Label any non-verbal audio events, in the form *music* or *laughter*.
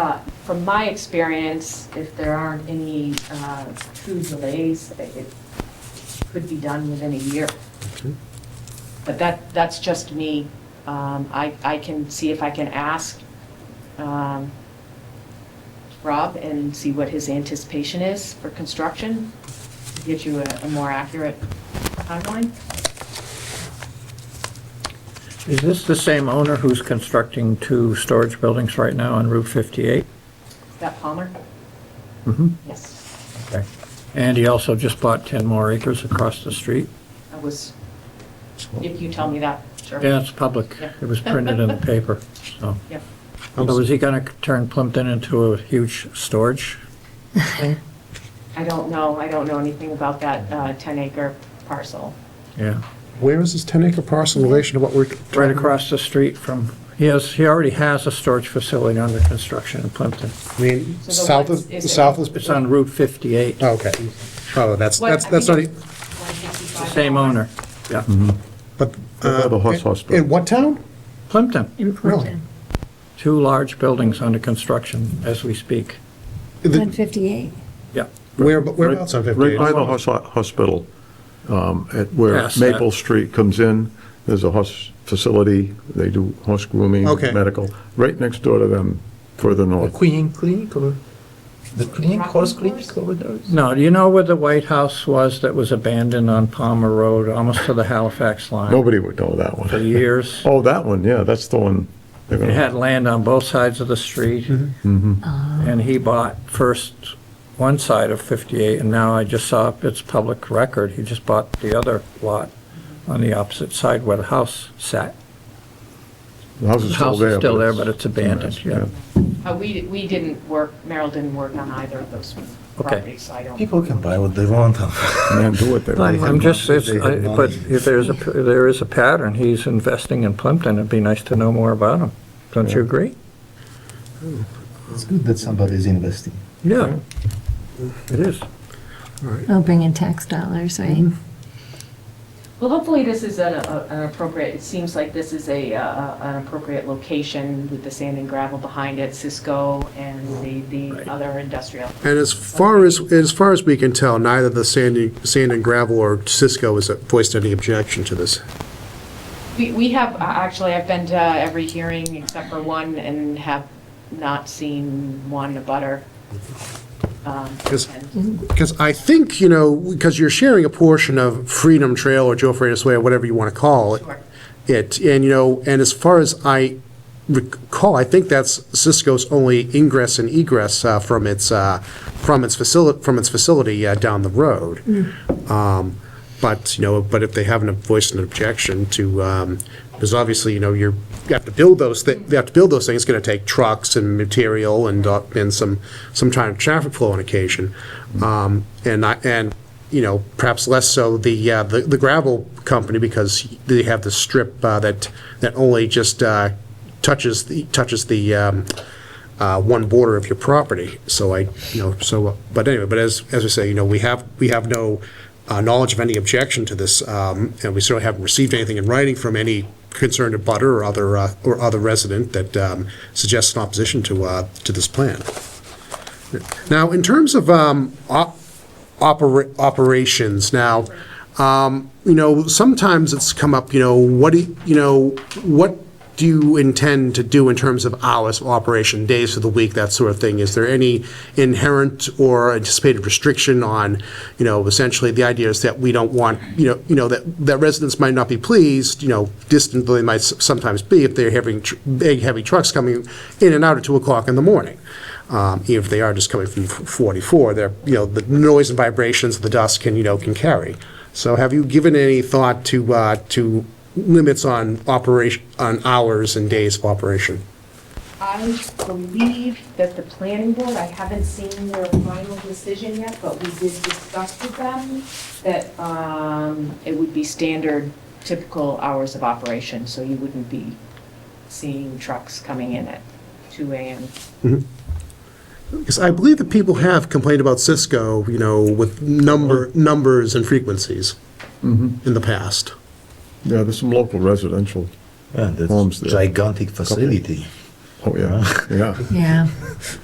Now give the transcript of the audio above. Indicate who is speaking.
Speaker 1: Uh, from my experience, if there aren't any uh, true delays, it it could be done within a year.
Speaker 2: Okay.
Speaker 1: But that, that's just me. Um, I, I can see if I can ask um, Rob and see what his anticipation is for construction, to get you a a more accurate timeline.
Speaker 3: Is this the same owner who's constructing two storage buildings right now on Route 58?
Speaker 1: Is that Palmer?
Speaker 3: Mhm,
Speaker 1: Yes,
Speaker 3: Okay. And he also just bought 10 more acres across the street?
Speaker 1: I was, if you tell me that, sure.
Speaker 3: Yeah, it's public.
Speaker 1: Yeah.
Speaker 3: It was printed in the paper, so.
Speaker 1: Yep.
Speaker 3: So is he going to turn Plimpton into a huge storage?
Speaker 1: I don't know, I don't know anything about that uh, 10 acre parcel.
Speaker 3: Yeah.
Speaker 2: Where is this 10-acre parcel in relation to what we're?
Speaker 3: Right across the street from, he has, he already has a storage facility under construction in Plimpton.
Speaker 2: I mean,
Speaker 1: So the
Speaker 2: south
Speaker 1: what's-
Speaker 2: of,
Speaker 1: is it-
Speaker 2: south of,
Speaker 3: It's on Route 58.
Speaker 2: oh, okay. Oh, that's,
Speaker 1: What-
Speaker 2: that's,
Speaker 1: I
Speaker 2: that's not,
Speaker 1: think
Speaker 2: e-
Speaker 1: it's 165.
Speaker 3: Same uh, owner, yeah.
Speaker 2: but.
Speaker 4: By the
Speaker 2: uh,
Speaker 4: horse
Speaker 2: in-
Speaker 4: hospital.
Speaker 2: In what town?
Speaker 3: Plimpton,
Speaker 5: in Plimpton.
Speaker 3: two large buildings under construction as we speak.
Speaker 2: The-
Speaker 5: 158.
Speaker 3: Yeah.
Speaker 2: Where, whereabouts on
Speaker 4: Right-
Speaker 2: 58?
Speaker 4: Right by the hos- hospital, um, at where
Speaker 3: Yes, that-
Speaker 4: Maple Street comes in, there's a horse facility, they do horse grooming,
Speaker 2: Okay.
Speaker 4: medical, right next door to them, further north.
Speaker 6: Queen Clinic or the clinic,
Speaker 1: Rocking
Speaker 6: horse clinic
Speaker 1: horse?
Speaker 6: over there? is-
Speaker 3: No, do you know where the White House was that was abandoned on Palmer Road, almost to the Halifax line?
Speaker 4: Nobody would know that
Speaker 3: For
Speaker 4: one.
Speaker 3: years.
Speaker 4: Oh, that one, yeah, that's the one. they're
Speaker 3: It
Speaker 4: gonna-
Speaker 3: had land on both sides of the street. Mm-hmm. And he bought first one side of 58, and now I just saw it's public record. He just bought the other lot on the opposite side where the house sat.
Speaker 4: The house is
Speaker 3: The
Speaker 4: still
Speaker 3: house
Speaker 4: there.
Speaker 3: is still there, but it's abandoned, yeah.
Speaker 1: Uh, We, we didn't work, Merrill didn't work on either of those properties, so I don't.
Speaker 6: People can buy what they *laughs* want.
Speaker 4: Man, do what they
Speaker 6: But-
Speaker 4: want.
Speaker 3: I'm just, it's-
Speaker 6: They had
Speaker 3: I- but
Speaker 6: money.
Speaker 3: if there's a, there is a pattern, he's investing in Plimpton, it'd be nice to know more about him. Don't you agree?
Speaker 6: It's good that somebody is investing.
Speaker 3: Yeah. It is.
Speaker 5: Oh, bring in tax dollars, right?
Speaker 1: Well, hopefully this is an, a- an appropriate, it seems like this is a, uh, an appropriate location with the sand and gravel behind it, Cisco and the, the other industrial.
Speaker 2: And as far as, as far as we can tell, neither the sandy, sand and gravel or Cisco has voiced any objection to this.
Speaker 1: We, we have, uh, actually, I've been to every hearing except for one and have not seen one abutter. Um,
Speaker 2: Yes.
Speaker 1: and-
Speaker 2: Because I think, you know, because you're sharing a portion of Freedom Trail or Joe Freitas Way or whatever you want to call it.
Speaker 1: Sure.
Speaker 2: It, and you know, and as far as I recall, I think that's Cisco's only ingress and egress uh, from its, uh, from its facility, from its facility uh, down the road. Um, But, you know, but if they haven't voiced an objection to, um, because obviously, you know, you're, you have to build those, thi- you have to build those things, it's gonna take trucks and material and, uh, and some, some time traffic flow on occasion. Um, And I, and, you know, perhaps less so the, uh, the the gravel company, because they have the strip uh, that, that only just uh, touches, the touches the, um, uh, one border of your property. So I, you know, so, but anyway, but as, as I say, you know, we have, we have no uh, knowledge of any objection to this, um, and we certainly haven't received anything in writing from any concerned abutter or other, uh, or other resident that um, suggests an opposition to, uh, to this plan. Now, in terms of um, op- opera- operations, now, um, you know, sometimes it's come up, you know, what do, you know, what do you intend to do in terms of hours of operation, days of the week, that sort of thing? Is there any inherent or anticipated restriction on, you know, essentially, the idea is that we don't want, you know, you know, that, that residents might not be pleased, you know, distant though they might s- sometimes be if they're having tr- big, heavy trucks coming in and out at 2 o'clock in the morning um, even if they are just coming from 44, they're, you know, the noise and vibrations of the dust can, you know, can carry. So have you given any thought to, uh, to limits on operation, on hours and days of operation?
Speaker 1: I believe that the planning board, I haven't seen their final decision yet, but we did discuss with them that um, it would be standard typical hours of operation, so you wouldn't be seeing trucks coming in at 2 AM.
Speaker 2: Because I believe that people have complained about Cisco, you know, with number, numbers and frequencies in the past.
Speaker 4: Yeah, there's some local residential.
Speaker 6: Yeah, that's
Speaker 4: Homes there.
Speaker 6: gigantic facility.
Speaker 3: *laughs*
Speaker 4: Oh, yeah, yeah.
Speaker 5: Yeah.